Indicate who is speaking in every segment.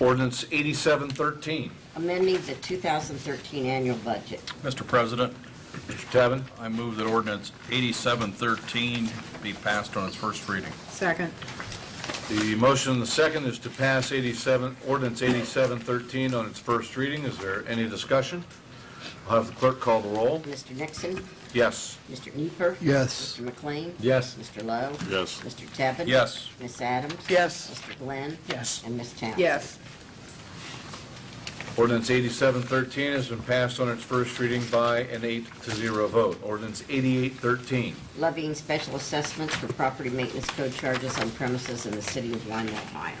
Speaker 1: Ordinance 8713.
Speaker 2: amending the 2013 annual budget.
Speaker 3: Mr. President,
Speaker 1: Mr. Tevin?
Speaker 3: I move that ordinance 8713 be passed on its first reading.
Speaker 4: Second.
Speaker 1: The motion and the second is to pass 87, ordinance 8713 on its first reading. Is there any discussion? I'll have the clerk call the roll.
Speaker 2: Mr. Nixon?
Speaker 1: Yes.
Speaker 2: Mr. Nieper.
Speaker 5: Yes.
Speaker 2: Mr. McLean?
Speaker 1: Yes.
Speaker 2: Mr. Lowe?
Speaker 6: Yes.
Speaker 2: Mr. Tevin?
Speaker 3: Yes.
Speaker 2: Ms. Adams?
Speaker 4: Yes.
Speaker 2: Mr. Glenn?
Speaker 5: Yes.
Speaker 2: And Ms. Townsend?
Speaker 4: Yes.
Speaker 1: Ordinance 8713 has been passed on its first reading by an eight to zero vote. Ordinance 8813.
Speaker 2: Levying special assessments for property maintenance code charges on premises in the city of Lima, Ohio.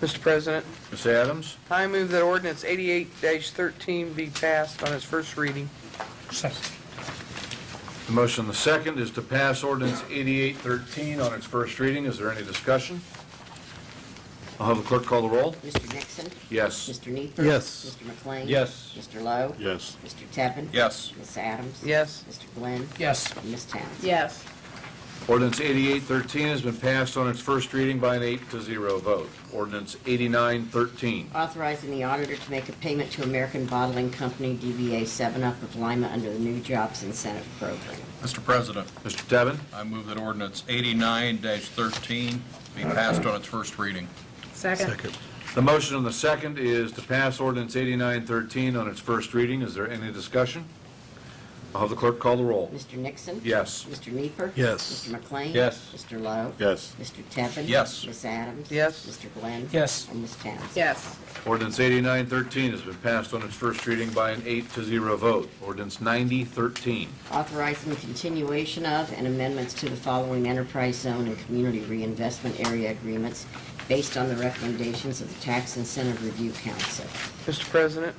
Speaker 4: Mr. President,
Speaker 1: Ms. Adams?
Speaker 4: I move that ordinance 88-13 be passed on its first reading.
Speaker 5: Second.
Speaker 1: The motion and the second is to pass ordinance 8813 on its first reading. Is there any discussion? I'll have the clerk call the roll.
Speaker 2: Mr. Nixon?
Speaker 1: Yes.
Speaker 2: Mr. Nieper.
Speaker 5: Yes.
Speaker 2: Mr. McLean?
Speaker 1: Yes.
Speaker 2: Mr. Lowe?
Speaker 6: Yes.
Speaker 2: Mr. Tevin?
Speaker 3: Yes.
Speaker 2: Ms. Adams?
Speaker 4: Yes.
Speaker 2: Mr. Glenn?
Speaker 5: Yes.
Speaker 2: And Ms. Townsend?
Speaker 4: Yes.
Speaker 1: Ordinance 8813 has been passed on its first reading by an eight to zero vote. Ordinance 8913.
Speaker 2: Authorizing the auditor to make a payment to American Bottling Company, DBA 7-Up of Lima, under the new Jobs Incentive Program.
Speaker 3: Mr. President,
Speaker 1: Mr. Tevin?
Speaker 3: I move that ordinance 89-13 be passed on its first reading.
Speaker 4: Second.
Speaker 5: Second.
Speaker 1: The motion on the second is to pass ordinance 8913 on its first reading. Is there any discussion? I'll have the clerk call the roll.
Speaker 2: Mr. Nixon?
Speaker 1: Yes.
Speaker 2: Mr. Nieper.
Speaker 5: Yes.
Speaker 2: Mr. McLean?
Speaker 1: Yes.
Speaker 2: Mr. Lowe?
Speaker 6: Yes.
Speaker 2: Mr. Tevin?
Speaker 3: Yes.
Speaker 2: Ms. Adams?
Speaker 4: Yes.
Speaker 2: Mr. Glenn?
Speaker 5: Yes.
Speaker 2: And Ms. Townsend?
Speaker 4: Yes.
Speaker 1: Ordinance 8913 has been passed on its first reading by an eight to zero vote. Ordinance 9013.
Speaker 2: Authorizing continuation of and amendments to the following enterprise zone and community reinvestment area agreements based on the recommendations of the Tax Incentive Review Council.
Speaker 4: Mr. President,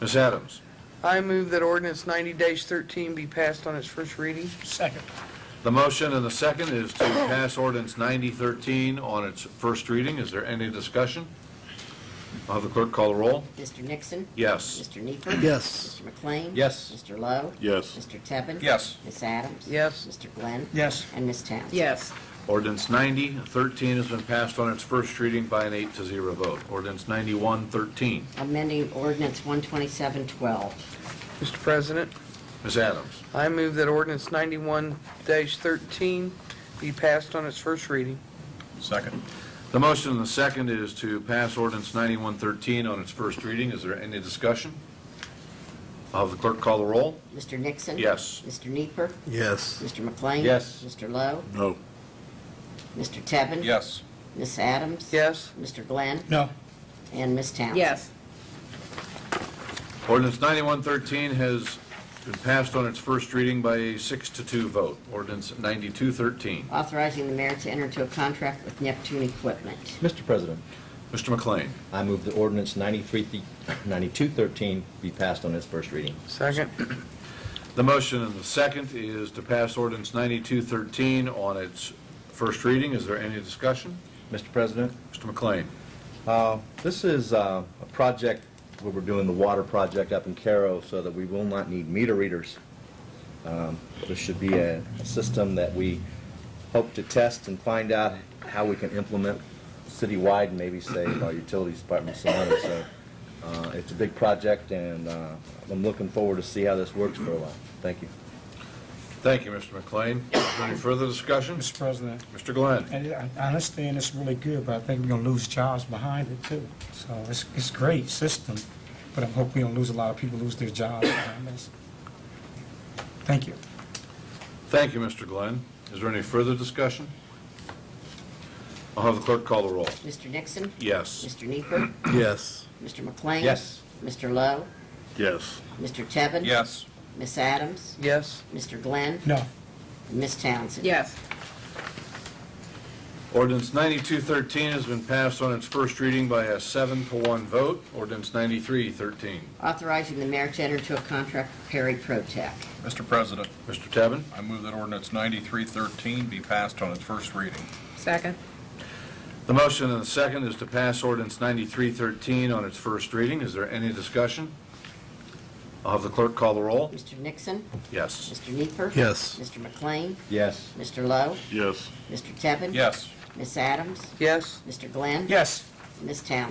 Speaker 1: Ms. Adams?
Speaker 4: I move that ordinance 90-13 be passed on its first reading.
Speaker 5: Second.
Speaker 1: The motion and the second is to pass ordinance 9013 on its first reading. Is there any discussion? I'll have the clerk call the roll.
Speaker 2: Mr. Nixon?
Speaker 1: Yes.
Speaker 2: Mr. Nieper.
Speaker 5: Yes.
Speaker 2: Mr. McLean?
Speaker 1: Yes.
Speaker 2: Mr. Lowe?
Speaker 6: Yes.
Speaker 2: Mr. Tevin?
Speaker 3: Yes.
Speaker 2: Ms. Adams?
Speaker 4: Yes.
Speaker 2: Mr. Glenn?
Speaker 5: Yes.
Speaker 2: And Ms. Townsend?
Speaker 4: Yes.
Speaker 1: Ordinance 9013 has been passed on its first reading by an eight to zero vote. Ordinance 9113.
Speaker 2: Amending ordinance 12712.
Speaker 4: Mr. President,
Speaker 1: Ms. Adams?
Speaker 4: I move that ordinance 91-13 be passed on its first reading.
Speaker 3: Second.
Speaker 1: The motion and the second is to pass ordinance 9113 on its first reading. Is there any discussion? I'll have the clerk call the roll.
Speaker 2: Mr. Nixon?
Speaker 1: Yes.
Speaker 2: Mr. Nieper.
Speaker 5: Yes.
Speaker 2: Mr. McLean?
Speaker 1: Yes.
Speaker 2: Mr. Lowe?
Speaker 6: No.
Speaker 2: Mr. Tevin?
Speaker 3: Yes.
Speaker 2: Ms. Adams?
Speaker 4: Yes.
Speaker 2: Mr. Glenn?
Speaker 5: No.
Speaker 2: And Ms. Townsend?
Speaker 1: Ordinance 9113 has been passed on its first reading by a six to two vote. Ordinance 9213.
Speaker 2: Authorizing the mayor to enter into a contract with Neptune Equipment.
Speaker 7: Mr. President,
Speaker 1: Mr. McLean.
Speaker 7: I move that ordinance 93 9213 be passed on its first reading.
Speaker 4: Second.
Speaker 1: The motion and the second is to pass ordinance 9213 on its first reading. Is there any discussion?
Speaker 7: Mr. President,
Speaker 1: Mr. McLean.
Speaker 7: uh, this is uh, a project where we're doing the water project up in Caro so that we will not need meter readers. Um, This should be a a system that we hope to test and find out how we can implement citywide and maybe save our utilities department some money. So uh, it's a big project, and uh, I'm looking forward to see how this works for a while. Thank you.
Speaker 1: Thank you, Mr. McLean. Is there any further discussion?
Speaker 8: Mr. President,
Speaker 1: Mr. Glenn.
Speaker 8: and I I understand it's really good, but I think we're gonna lose jobs behind it too. So it's, it's great system, but I hope we don't lose a lot of people lose their jobs behind this. Thank you.
Speaker 1: Thank you, Mr. Glenn. Is there any further discussion? I'll have the clerk call the roll.
Speaker 2: Mr. Nixon?
Speaker 1: Yes.
Speaker 2: Mr. Nieper.
Speaker 5: Yes.
Speaker 2: Mr. McLean?
Speaker 1: Yes.
Speaker 2: Mr. Lowe?
Speaker 6: Yes.
Speaker 2: Mr. Tevin?
Speaker 3: Yes.
Speaker 2: Ms. Adams?
Speaker 4: Yes.
Speaker 2: Mr. Glenn?
Speaker 8: No,
Speaker 2: And Ms. Townsend?
Speaker 4: Yes.
Speaker 1: Ordinance 9213 has been passed on its first reading by a seven to one vote. Ordinance 9313.
Speaker 2: Authorizing the mayor to enter into a contract with Perry Protech.
Speaker 3: Mr. President,
Speaker 1: Mr. Tevin?
Speaker 3: I move that ordinance 9313 be passed on its first reading.
Speaker 4: Second.
Speaker 1: The motion and the second is to pass ordinance 9313 on its first reading. Is there any discussion? I'll have the clerk call the roll.
Speaker 2: Mr. Nixon?
Speaker 1: Yes.
Speaker 2: Mr. Nieper.
Speaker 5: Yes.
Speaker 2: Mr. McLean?
Speaker 7: Yes.
Speaker 2: Mr. Lowe?
Speaker 6: Yes.
Speaker 2: Mr. Tevin?
Speaker 3: Yes.
Speaker 2: Ms. Adams?
Speaker 4: Yes.
Speaker 2: Mr. Glenn?
Speaker 8: yes.
Speaker 2: Ms. Townsend?